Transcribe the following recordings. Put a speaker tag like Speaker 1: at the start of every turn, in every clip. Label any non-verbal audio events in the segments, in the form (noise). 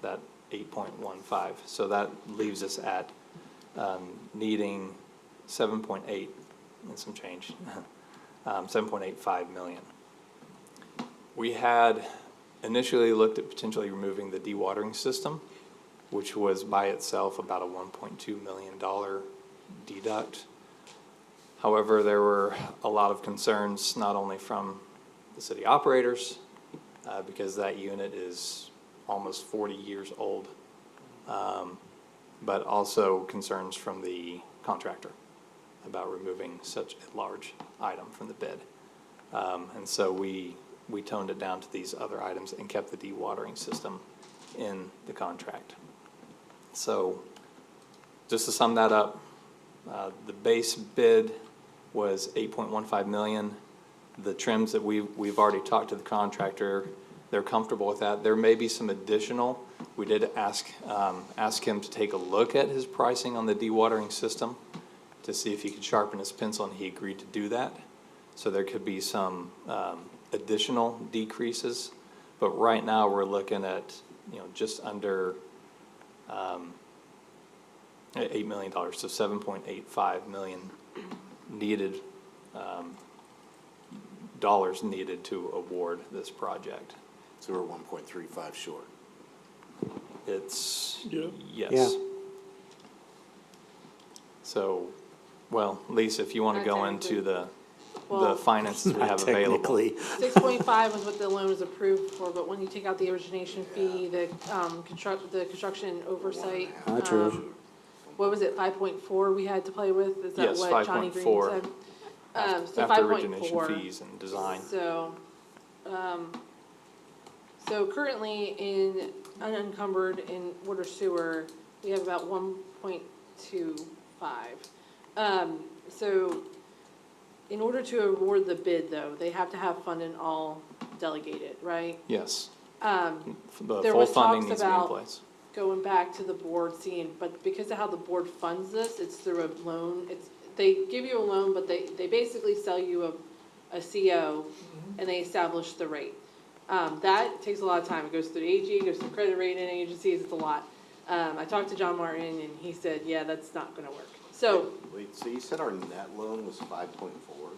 Speaker 1: that eight point one five. So that leaves us at, um, needing seven point eight and some change, (laughs) um, seven point eight five million. We had initially looked at potentially removing the dewatering system, which was by itself about a one point two million dollar deduct. However, there were a lot of concerns, not only from the city operators, uh, because that unit is almost forty years old, um, but also concerns from the contractor about removing such a large item from the bid. Um, and so we, we toned it down to these other items and kept the dewatering system in the contract. So, just to sum that up, uh, the base bid was eight point one five million. The trims that we, we've already talked to the contractor, they're comfortable with that. There may be some additional. We did ask, um, ask him to take a look at his pricing on the dewatering system to see if he could sharpen his pencil, and he agreed to do that. So there could be some, um, additional decreases. But right now, we're looking at, you know, just under, um, eight million dollars, so seven point eight five million needed, um, dollars needed to award this project.
Speaker 2: So we're one point three five short.
Speaker 1: It's,
Speaker 3: Yeah.
Speaker 1: yes. So, well, Lisa, if you wanna
Speaker 4: Not
Speaker 1: go into the, the
Speaker 4: Uh, Well- (laughs) Um,
Speaker 1: finances we have
Speaker 2: Not
Speaker 1: available.
Speaker 2: Technically,
Speaker 4: Six point five was what the loan was approved for, but when you take out the origination fee, the, um, construct, the construction and oversight.
Speaker 2: Ah, true.
Speaker 4: um, What was it, five point four we had to play with? Is that
Speaker 1: Yes,
Speaker 4: what Johnny Green
Speaker 1: 5.4.
Speaker 4: said? Um, so
Speaker 1: After
Speaker 4: five point
Speaker 1: origination
Speaker 4: four.
Speaker 1: fees and design,
Speaker 4: So, um, so currently in unencumbered in water sewer, we have about one point two five. Um, so in order to award the bid though, they have to have fund and all delegated, right?
Speaker 1: yes. Um. The
Speaker 4: there
Speaker 1: full
Speaker 4: was
Speaker 1: funding
Speaker 4: talks
Speaker 1: needs to be in
Speaker 4: about-
Speaker 1: place.
Speaker 4: Going back to the board scene, but because of how the board funds this, it's through a loan, it's, they give you a loan, but they, they basically sell you a, a CO and they establish the rate. Um, that takes a lot of time. It goes through the AG, goes through credit rating agencies, it's a lot. Um, I talked to John Martin and he said, yeah, that's not gonna work. So
Speaker 5: Wait, so you said our net loan was five point four?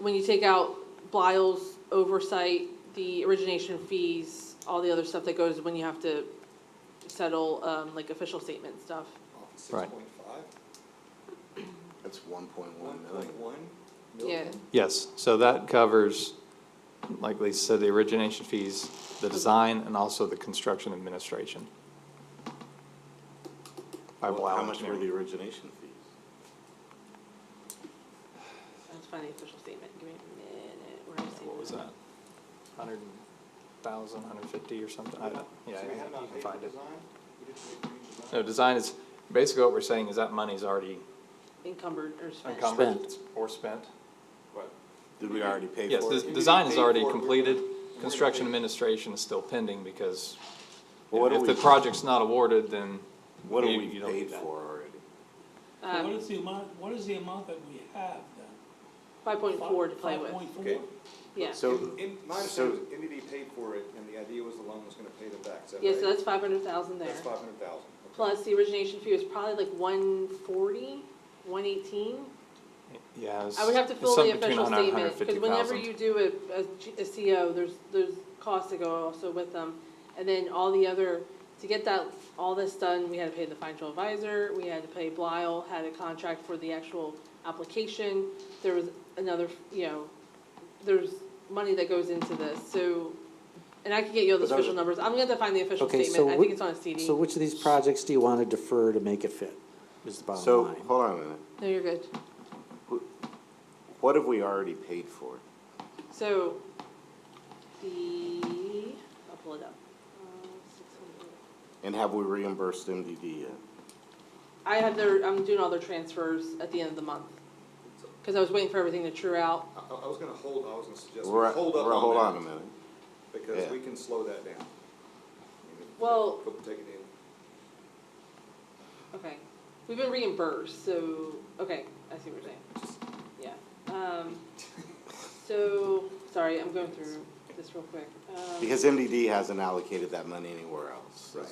Speaker 4: when you take out Blaile's oversight, the origination fees, all the other stuff that goes when you have to settle, um, like official statement stuff.
Speaker 1: Right.
Speaker 5: That's one point one million.
Speaker 4: Yeah,
Speaker 1: Yes, so that covers, like Lisa said, the origination fees, the design, and also the construction administration. By
Speaker 5: Well, How
Speaker 1: Blau
Speaker 5: much were the
Speaker 1: Engineering.
Speaker 5: origination fees?
Speaker 4: let's find the official statement. Give me a minute. Where is it?
Speaker 1: What was that? Hundred thousand, hundred fifty or something? I don't, yeah,
Speaker 6: So we have
Speaker 1: you
Speaker 6: not
Speaker 1: can
Speaker 6: paid
Speaker 1: find
Speaker 6: for
Speaker 1: it.
Speaker 6: design? We didn't pay for
Speaker 1: No,
Speaker 6: design?
Speaker 1: design is, basically what we're saying is that money's already
Speaker 4: Encumbered or spent.
Speaker 1: encumbered
Speaker 2: Spent.
Speaker 1: or spent.
Speaker 6: What?
Speaker 5: Did we already pay
Speaker 1: Yes,
Speaker 5: for
Speaker 1: the
Speaker 5: it?
Speaker 1: design is
Speaker 6: paid
Speaker 1: already
Speaker 6: for it, we're gonna-
Speaker 1: completed,
Speaker 6: we're gonna
Speaker 1: construction
Speaker 6: pay.
Speaker 1: administration is still pending because
Speaker 5: Well, what do
Speaker 1: if the
Speaker 5: we-
Speaker 1: project's not awarded, then
Speaker 5: What
Speaker 1: you-
Speaker 5: are we
Speaker 1: you don't
Speaker 5: paid
Speaker 1: do that.
Speaker 5: for already?
Speaker 4: Um,
Speaker 3: So What is the amount, what is the amount that we have then?
Speaker 4: Five point four to play with,
Speaker 3: Five point
Speaker 6: Okay.
Speaker 3: four?
Speaker 4: yeah.
Speaker 5: So,
Speaker 6: In, in- my understanding was MDD paid for it, and the idea was the loan was gonna pay them back, is that
Speaker 4: Yeah, so
Speaker 6: right?
Speaker 4: that's five hundred thousand there.
Speaker 6: That's five hundred thousand.
Speaker 4: Plus, the origination fee was probably like one forty, one eighteen.
Speaker 1: yeah, it's
Speaker 4: I would have to
Speaker 1: it's
Speaker 4: fill the
Speaker 1: something between
Speaker 4: official
Speaker 1: 100 and
Speaker 4: statement, because
Speaker 1: 150,000.
Speaker 4: whenever you do a, a G- a CO, there's, there's costs that go also with them. And then all the other, to get that, all this done, we had to pay the financial advisor, we had to pay Blile, had a contract for the actual application. There was another, you know, there's money that goes into this, so, and I could get you all the
Speaker 5: But that was-
Speaker 4: official numbers. I'm gonna have to find the official
Speaker 7: Okay,
Speaker 4: statement,
Speaker 7: so
Speaker 4: I
Speaker 7: whi-
Speaker 4: think it's on a CD.
Speaker 7: So which of these projects do you want to defer to make it fit, is the
Speaker 5: so,
Speaker 7: bottom line?
Speaker 5: hold on a minute.
Speaker 4: No, you're good.
Speaker 5: What have we already paid for?
Speaker 4: So, the, I'll pull it up. Uh, 600.
Speaker 5: And have we reimbursed MDD yet?
Speaker 4: I have their, I'm doing all their transfers at the end of the month. Cause I was waiting for everything to true out.
Speaker 6: I, I was gonna hold, I was gonna suggest, we
Speaker 5: We're,
Speaker 6: hold up
Speaker 5: we're, hold on a
Speaker 6: on that,
Speaker 5: minute.
Speaker 6: because
Speaker 5: Yeah.
Speaker 6: we can slow that down. I mean,
Speaker 4: Well-
Speaker 6: we'll take it in.
Speaker 4: Okay. We've been reimbursed, so, okay, I see what you're saying. Yeah. Um, so, sorry, I'm going through this real quick. Um,
Speaker 5: Because MDD hasn't allocated that money anywhere else.
Speaker 6: Right.